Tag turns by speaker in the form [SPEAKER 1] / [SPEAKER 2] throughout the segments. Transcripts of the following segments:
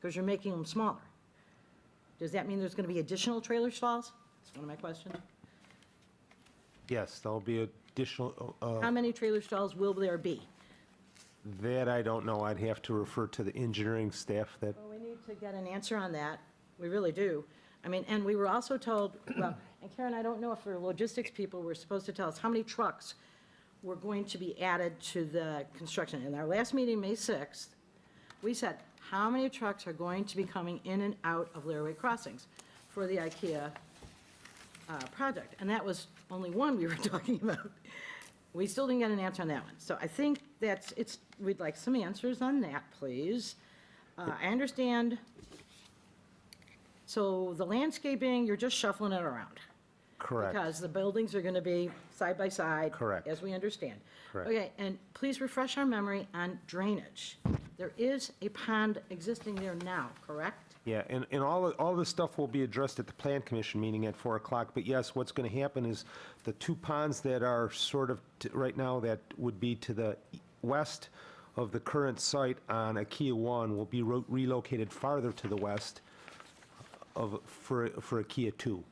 [SPEAKER 1] because you're making them smaller. Does that mean there's going to be additional trailer stalls? That's one of my questions.
[SPEAKER 2] Yes, there'll be additional, uh,
[SPEAKER 1] How many trailer stalls will there be?
[SPEAKER 2] that I don't know. I'd have to refer to the engineering staff that,
[SPEAKER 1] Well, we need to get an answer on that. We really do. I mean, and we were also told, well, and Karen, I don't know if the logistics people were supposed to tell us how many trucks were going to be added to the construction. In our last meeting, May 6th, we said, how many trucks are going to be coming in and out of Laraway Crossings for the IKEA uh, project? And that was only one we were talking about. We still didn't get an answer on that one. So I think that's, it's, we'd like some answers on that, please. Uh, I understand, so the landscaping, you're just shuffling it around.
[SPEAKER 2] correct.
[SPEAKER 1] Because the buildings are going to be side by side.
[SPEAKER 2] Correct.
[SPEAKER 1] As we understand.
[SPEAKER 2] Correct.
[SPEAKER 1] Okay, and please refresh our memory on drainage. There is a pond existing there now, correct?
[SPEAKER 2] Yeah, and, and all, all this stuff will be addressed at the Plan Commission meeting at 4 o'clock. But yes, what's going to happen is the two ponds that are sort of, t- right now, that would be to the e- west of the current site on IKEA 1 will be ro- relocated farther to the west of, for, for IKEA 2.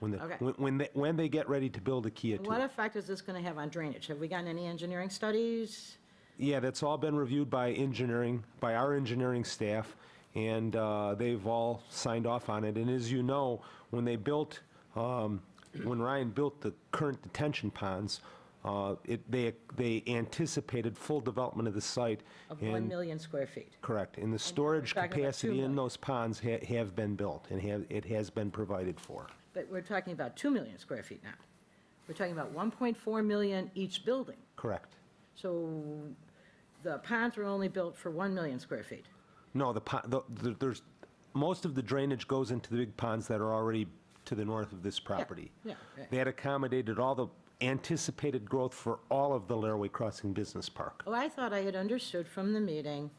[SPEAKER 2] When the,
[SPEAKER 1] Okay.
[SPEAKER 2] when- when, they- when they get ready to build IKEA 2.
[SPEAKER 1] What effect is this going to have on drainage? Have we gotten any engineering studies?
[SPEAKER 2] Yeah, that's all been reviewed by engineering, by our engineering staff, and uh, they've all signed off on it. And as you know, when they built, um, when Ryan built the current detention ponds, uh, it, they, they anticipated full development of the site.
[SPEAKER 1] Of 1
[SPEAKER 2] and-
[SPEAKER 1] million square feet.
[SPEAKER 2] Correct. And the storage
[SPEAKER 1] talking about two
[SPEAKER 2] capacity
[SPEAKER 1] million.
[SPEAKER 2] in those ponds ha- have been built, and have, it has been provided for.
[SPEAKER 1] But we're talking about 2 million square feet now. We're talking about 1.4 million each building.
[SPEAKER 2] Correct.
[SPEAKER 1] So the ponds were only built for 1 million square feet.
[SPEAKER 2] No, the, po- the- the- there's, most of the drainage goes into the big ponds that are already to the north of this property.
[SPEAKER 1] yeah, right.
[SPEAKER 2] That accommodated all the anticipated growth for all of the Laraway Crossing Business Park.
[SPEAKER 1] Oh, I thought I had understood from the meeting,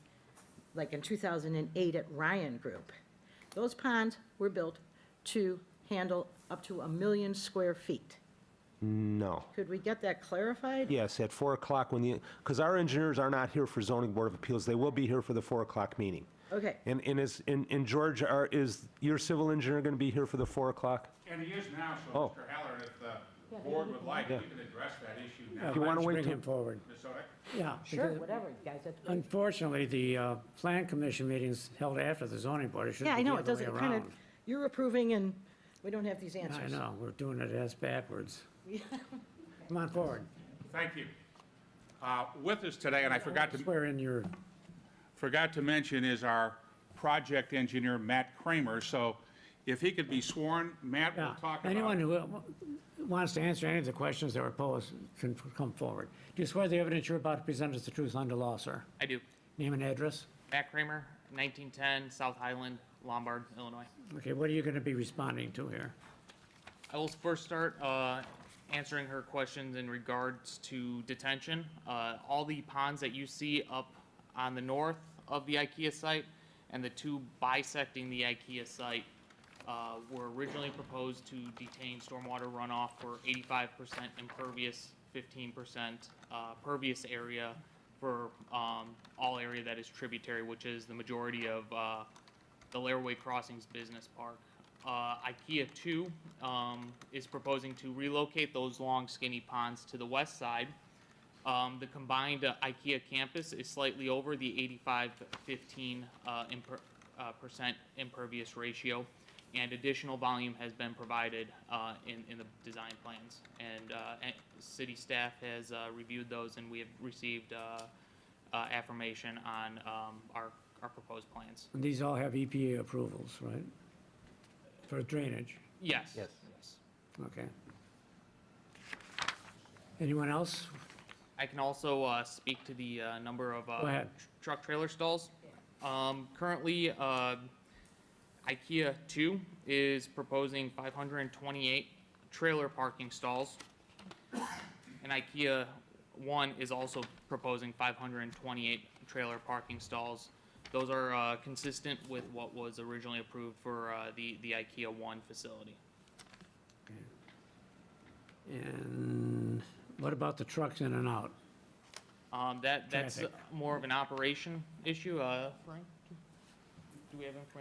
[SPEAKER 1] like in 2008 at Ryan Group, those ponds were built to handle up to a million square feet.
[SPEAKER 2] No.
[SPEAKER 1] Could we get that clarified?
[SPEAKER 2] Yes, at 4 o'clock when the, because our engineers are not here for zoning board of appeals, they will be here for the 4 o'clock meeting.
[SPEAKER 1] Okay.
[SPEAKER 2] And, and is, and and George, are, is your civil engineer going to be here for the 4 o'clock?
[SPEAKER 3] And he is now,
[SPEAKER 2] Oh.
[SPEAKER 3] so Mr. Heller, if the board would like, we can address that issue now.
[SPEAKER 2] You
[SPEAKER 3] Ms.
[SPEAKER 2] want
[SPEAKER 4] Let's
[SPEAKER 2] to wait
[SPEAKER 4] Bring
[SPEAKER 2] till,
[SPEAKER 4] him forward,
[SPEAKER 3] Oden?
[SPEAKER 4] yeah.
[SPEAKER 1] Sure,
[SPEAKER 4] because
[SPEAKER 1] whatever, guys, that's great.
[SPEAKER 4] Unfortunately, the uh, Plan Commission meeting's held after the zoning board. It should be
[SPEAKER 1] Yeah, I know,
[SPEAKER 4] the
[SPEAKER 1] it
[SPEAKER 4] other way
[SPEAKER 1] doesn't, kind of,
[SPEAKER 4] around.
[SPEAKER 1] you're approving and we don't have these answers.
[SPEAKER 4] I know, we're doing it as backwards. Come on forward.
[SPEAKER 3] Thank you. Uh, With us today, and I forgot to,
[SPEAKER 4] Swear in your,
[SPEAKER 3] forgot to mention, is our project engineer, Matt Kramer. So if he could be sworn, Matt will
[SPEAKER 4] yeah.
[SPEAKER 3] talk about.
[SPEAKER 4] Anyone who uh, wants to answer any of the questions that were posed can f- come forward. Do you swear the evidence you're about to present is the truth under law, sir?
[SPEAKER 5] I do.
[SPEAKER 4] Name and address?
[SPEAKER 5] Matt Kramer, 1910 South Highland, Lombard, Illinois.
[SPEAKER 4] Okay, what are you going to be responding to here?
[SPEAKER 5] I will first start uh, answering her questions in regards to detention. Uh, All the ponds that you see up on the north of the IKEA site and the two bisecting the IKEA site uh, were originally proposed to detain stormwater runoff for 85% impervious, 15% uh, pervious area for um, all area that is tributary, which is the majority of uh, the Laraway Crossings Business Park. Uh, IKEA two, um, is proposing to relocate those long skinny ponds to the west side. Um, the combined uh, IKEA campus is slightly over the eighty-five fifteen, uh, imper, uh, percent impervious ratio. And additional volume has been provided, uh, in, in the design plans. And, uh, and city staff has, uh, reviewed those and we have received, uh, uh, affirmation on, um, our, our proposed plans.
[SPEAKER 4] And These all have EPA approvals, right? For drainage,
[SPEAKER 5] Yes.
[SPEAKER 2] Yes.
[SPEAKER 4] okay. Anyone else?
[SPEAKER 5] I can also uh, speak to the uh, number of uh,
[SPEAKER 4] Go ahead.
[SPEAKER 5] tr- truck trailer stalls. Um, Currently, uh, IKEA 2 is proposing 528 trailer parking stalls. And IKEA 1 is also proposing 528 trailer parking stalls. Those are uh, consistent with what was originally approved for uh, the the IKEA 1 facility.
[SPEAKER 4] And what about the trucks in and out?
[SPEAKER 5] Um, That That's
[SPEAKER 4] Traffic.
[SPEAKER 5] more of an operation issue. uh, Do we have information